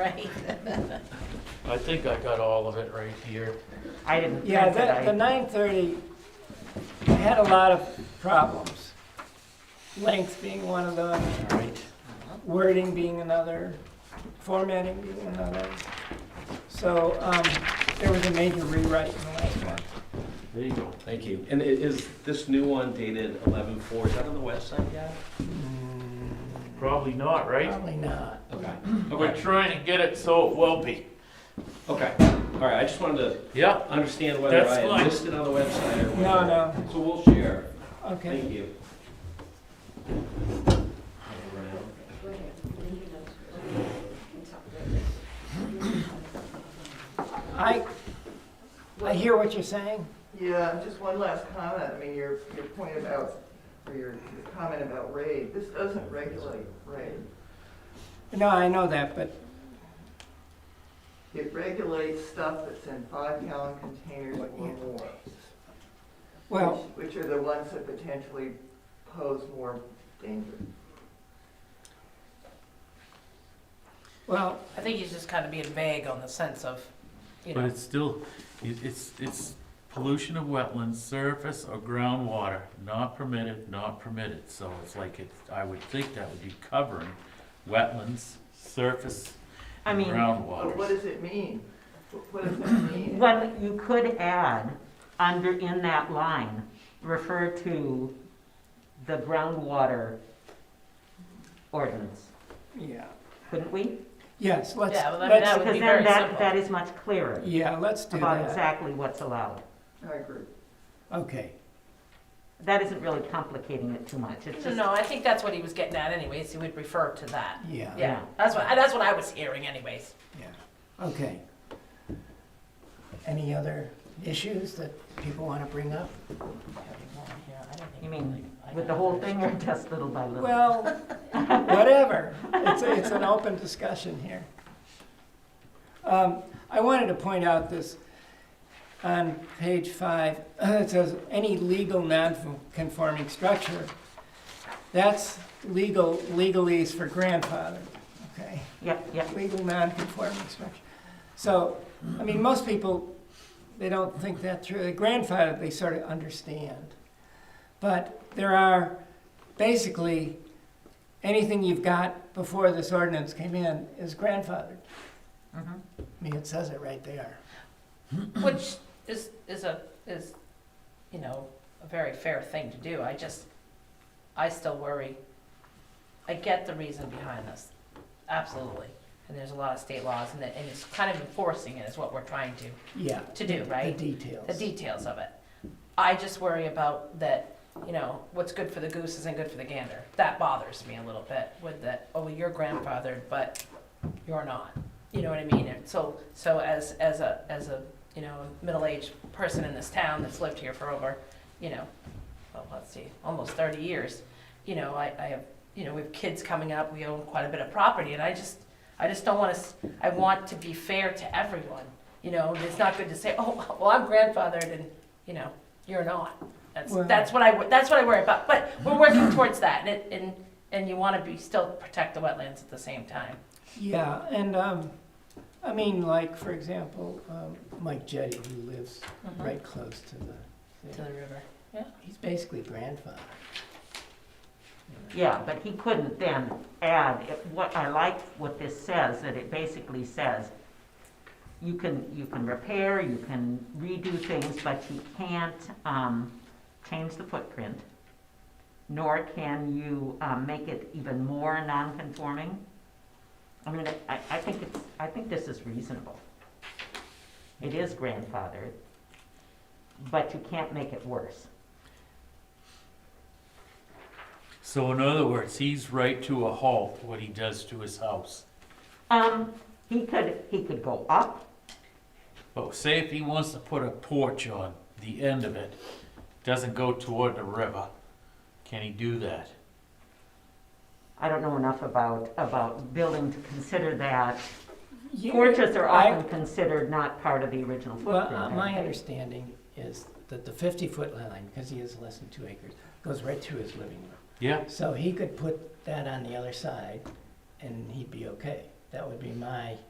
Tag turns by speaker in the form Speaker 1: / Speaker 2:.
Speaker 1: Right.
Speaker 2: I think I got all of it right here.
Speaker 3: I didn't print
Speaker 4: Yeah,
Speaker 3: it.
Speaker 4: that, the
Speaker 3: I-
Speaker 4: nine thirty had a lot of problems. Length being one of them,
Speaker 2: All right.
Speaker 4: wording being another, formatting being another. So, um, there was a major rewrite in the last one.
Speaker 2: There you go.
Speaker 5: Thank you. And i- is this new one dated eleven four? Is that on the website yet?
Speaker 2: Probably not, right?
Speaker 4: Probably not.
Speaker 5: Okay.
Speaker 2: We're
Speaker 5: Okay.
Speaker 2: trying to get it so it will be.
Speaker 5: Okay. All right. I just wanted
Speaker 2: Yep.
Speaker 5: to understand whether
Speaker 2: That's
Speaker 5: I
Speaker 2: fine.
Speaker 5: had missed it on the website or
Speaker 4: No,
Speaker 5: whether-
Speaker 4: no,
Speaker 5: So we'll share.
Speaker 4: okay.
Speaker 5: Thank you.
Speaker 4: I, I hear what you're saying.
Speaker 6: Yeah, and just one last comment. I mean, your, your point about, or your your comment about raid, this doesn't regulate raid.
Speaker 4: No, I know that, but
Speaker 6: It regulates stuff that's in five gallon containers or
Speaker 4: Yeah.
Speaker 6: more.
Speaker 4: Well,
Speaker 6: Which which are the ones that potentially pose more danger.
Speaker 4: well,
Speaker 3: I think he's just kind of being vague on the sense of, you
Speaker 2: But
Speaker 3: know,
Speaker 2: it's still, it- it's, it's pollution of wetlands, surface or groundwater, not permitted, not permitted. So it's like it, I would think that would be covering wetlands, surface,
Speaker 7: I
Speaker 2: and
Speaker 7: mean,
Speaker 6: But what
Speaker 2: groundwaters.
Speaker 6: does it mean? What- What does that mean?
Speaker 7: well, you could add under, in that line, refer to the groundwater ordinance,
Speaker 4: yeah,
Speaker 7: couldn't we?
Speaker 4: yes, let's,
Speaker 3: Yeah, well, I mean, that
Speaker 4: let's,
Speaker 3: would- be
Speaker 7: Because
Speaker 3: very
Speaker 7: then that,
Speaker 3: simple.
Speaker 7: that is much clearer
Speaker 4: yeah, let's do
Speaker 7: about
Speaker 4: that.
Speaker 7: exactly what's allowed.
Speaker 6: I agree.
Speaker 4: Okay,
Speaker 7: That isn't really complicating it too much,
Speaker 3: no,
Speaker 7: it's just,
Speaker 3: no, I think that's what he was getting at anyways, he would refer to that.
Speaker 4: yeah, yeah,
Speaker 3: Yeah, that's what, that's what I was hearing anyways.
Speaker 4: okay. Any other issues that people want to bring up?
Speaker 7: you mean, with the whole thing or just little by little?
Speaker 4: Well, whatever. It's, a- it's an open discussion here. Um, I wanted to point out this on page five. It says, any legal non-conforming structure. That's legal, legalese for grandfather, okay?
Speaker 7: Yep, yep,
Speaker 4: Legal non-conforming structure. So, I mean, most people, they don't think that through. The grandfather, they sort of understand. But there are basically anything you've got before this ordinance came in is grandfathered.
Speaker 3: Mm-hmm.
Speaker 7: Mhm.
Speaker 4: I mean, it says it right there.
Speaker 3: Which is, is a, is, you know, a very fair thing to do, I just, I still worry. I get the reason behind this, absolutely, and there's a lot of state laws, and that, and it's kind of enforcing it is what we're trying to
Speaker 4: Yeah.
Speaker 3: To do, right?
Speaker 4: The details.
Speaker 3: the details of it. I just worry about that, you know, what's good for the goose isn't good for the gander. That bothers me a little bit with that, oh, well, you're grandfathered, but you're not. You know what I mean? And so, so as, as a, as a, you know, middle-aged person in this town that's lived here for over, you know, well, let's see, almost thirty years, you know, I, I have, you know, we have kids coming up, we own quite a bit of property, and I just, I just don't wanna, s- I want to be fair to everyone. You know, it's not good to say, oh, well, I'm grandfathered and, you know, you're not. That's,
Speaker 4: Well-
Speaker 3: that's what I, wo- that's what I worry about, but we're working towards that and, it- and, and you wanna be, still protect the wetlands at the same time.
Speaker 4: Yeah, and, um, I mean, like, for example, um, Mike Jetty, who lives right close to the,
Speaker 3: Mm-hmm. To the river.
Speaker 4: he's basically grandfathered.
Speaker 7: yeah, but he couldn't then add, it- what, I like what this says, that it basically says, you can, you can repair, you can redo things, but you can't, um, change the footprint, nor can you, um, make it even more non-conforming. I mean, I, I think it's, I think this is reasonable. It is grandfathered, but you can't make it worse.
Speaker 2: So in other words, he's right to a halt what he does to his house.
Speaker 7: Um, he could, he could go up,
Speaker 2: But say if he wants to put a porch on the end of it, doesn't go toward the river, can he do that?
Speaker 7: I don't know enough about, about building to consider that.
Speaker 4: Yeah,
Speaker 7: Porches are
Speaker 4: I-
Speaker 7: often considered not part of the original
Speaker 4: Well, uh,
Speaker 7: footprint.
Speaker 4: my understanding is that the fifty-foot line, because he has less than two acres, goes right through his living room.
Speaker 2: Yeah,
Speaker 4: So he could put that on the other side, and he'd be okay. That would be my